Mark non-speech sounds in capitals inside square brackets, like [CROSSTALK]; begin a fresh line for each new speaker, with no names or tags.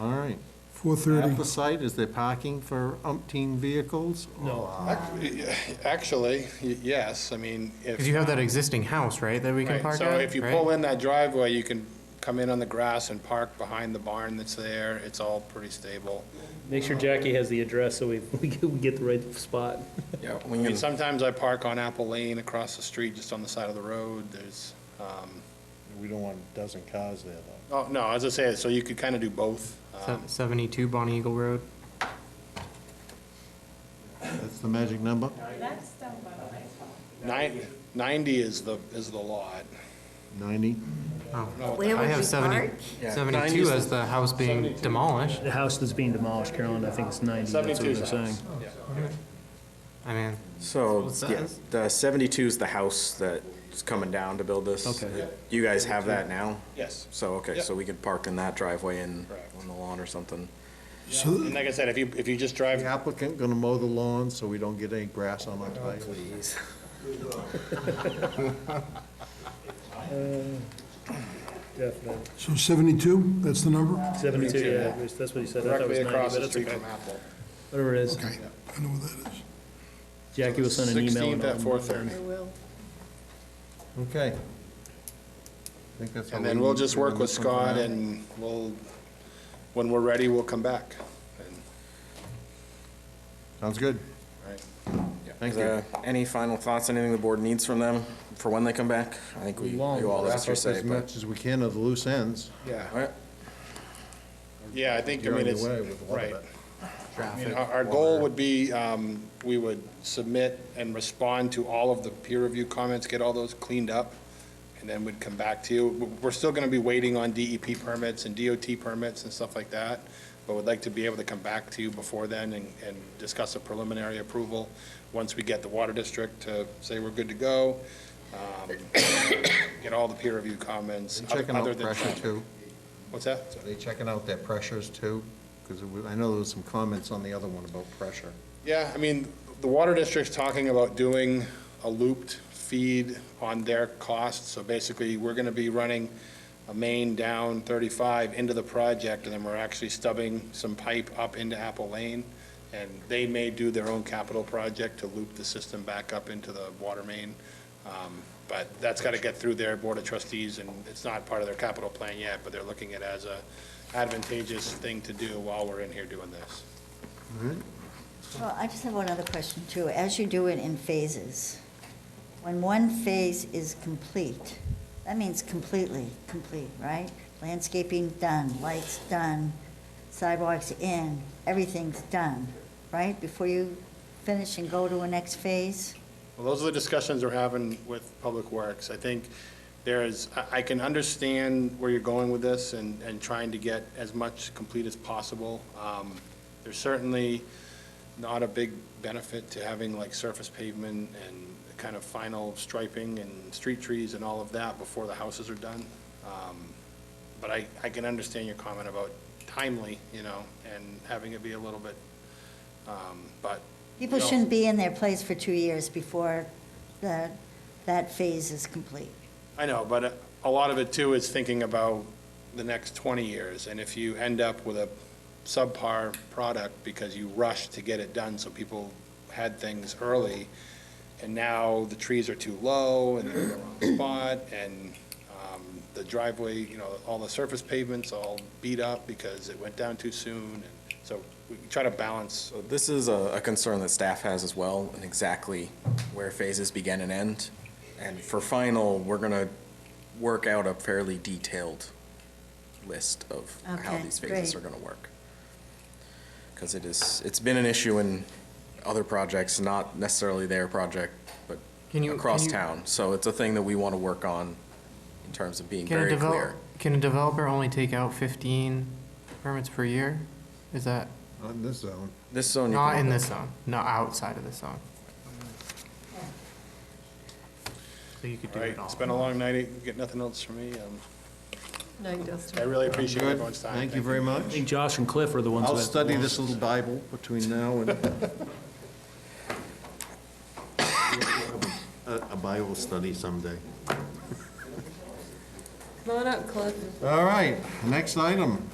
All right.
four
At
thirty.
the site, is there parking for umpteen vehicles?
No.
Ac- Actually, y- yes, I mean, if.
Because you have that existing house, right, that we can
Right,
park at?
So if you
right?
pull in that driveway, you can come in on the grass and park behind the barn that's there. It's all pretty stable.
Make sure Jackie has the address so we, [LAUGHS] we get- we get the right spot.
Yeah. I mean, sometimes I park on Apple Lane across the street, just on the side of the road. There's, um,
We don't want a dozen cars there, though.
oh, no, as I say, so you could kind of do both.
Se-
Um,
72 Bonny Eagle Road.
That's the magic number?
That's done by the way.
nine- 90 is the, is the lot.
Ninety?
Oh,
Where
I
would you
have 70
park?
72 as the house being demolished.
The house that's being demolished, Carolyn, I think it's 90, that's what
72 is
they're
the house.
saying.
I mean,
So,
What's
yeah,
that?
the seventy-two is the house that's coming down to build this.
Okay.
You guys have that now?
Yes.
So, okay,
Yep.
so we could park in that driveway and
Correct.
on the lawn or something.
And like I said, if you, if you just drive
The applicant gonna mow the lawn so we don't get any grass on
Oh,
our tires?
Definitely.
So seventy-two, that's the number?
72, yeah, that's what he said. I thought it was 90,
directly across
but
the
it's
street
okay.
from Apple.
Whatever it is.
I know what that is.
Jackie will send an email.
16th
and
at
all.
4:30.
Okay. I think that's all
And
we
then we'll
need
just
for
work with
this one for
Scott
now.
and we'll, when we're ready, we'll come back. And-
Sounds good. uh,
Right.
Thank
Is
you.
there Any final thoughts, anything the board needs from them for when they come back? I think we, you all
Wrap
asked your
up
say,
as
but.
much as we can of the loose ends.
Yeah,
All right,
yeah, I think, I
You're on
mean,
your
it's,
way with a lot of
right.
it.
I mean, Our our goal would be, um, we would submit and respond to all of the peer review comments, get all those cleaned up, and then we'd come back to you. We- We're still going to be waiting on DEP permits and DOT permits and stuff like that, but we'd like to be able to come back to you before then and, and discuss a preliminary approval once we get the water district to say we're good to go, um, [COUGHS] get all the peer review comments.
They
other-
Checking
other
out
than-
pressure too.
What's that?
Are they checking out their pressures too? Because I know there was some comments on the other one about pressure.
Yeah, I mean, the water district's talking about doing a looped feed on their cost, so basically, we're gonna be running a main down thirty-five into the project, and then we're actually stubbing some pipe up into Apple Lane, and they may do their own capital project to loop the system back up into the water main. Um, But that's gotta get through their board of trustees, and it's not part of their capital plan yet, but they're looking at it as a advantageous thing to do while we're in here doing this.
Well, I just have one other question too. As you do it in phases, when one phase is complete, that means completely complete, right? Landscaping done, lights done, sidewalks in, everything's done, right? Before you finish and go to a next phase?
Well, those are the discussions we're having with Public Works. I think there is, I, I can understand where you're going with this and, and trying to get as much complete as possible. Um, There's certainly not a big benefit to having like surface pavement and kind of final striping and street trees and all of that before the houses are done. Um, But I, I can understand your comment about timely, you know, and having it be a little bit, um, but
People
No.
shouldn't be in their place for two years before the, that phase is complete.
I know, but uh, a lot of it too is thinking about the next 20 years, and if you end up with a subpar product because you rushed to get it done, so people had things early, and now the trees are too low, and they're in the wrong spot, and um, the driveway, you know, all the surface pavement's all beat up because it went down too soon, and so we try to balance,
so this is a, a concern that staff has as well, and exactly where phases begin and end. And for final, we're gonna work out a fairly detailed list of how
Okay,
these phases
great.
are gonna work. Because it is, it's been an issue in other projects, not necessarily their project, but
Can you-
across
can you-
town. So it's a thing that we wanna work on in terms of being
can a
very
developer,
clear.
can a developer only take out 15 permits per year? Is that,
On this zone.
This zone. you
not
can-
in this zone, not outside of this zone? So you could do
all
it
right?
all.
It's been a long night, you get nothing else from me. um,
No, you just.
I really appreciate
Good,
everyone's time.
thank you very
I
much.
think Josh and Cliff are the ones that.
I'll study this little Bible between now [LAUGHS] and... A a Bible study someday.
Come on up, Cliff.
All right, next item.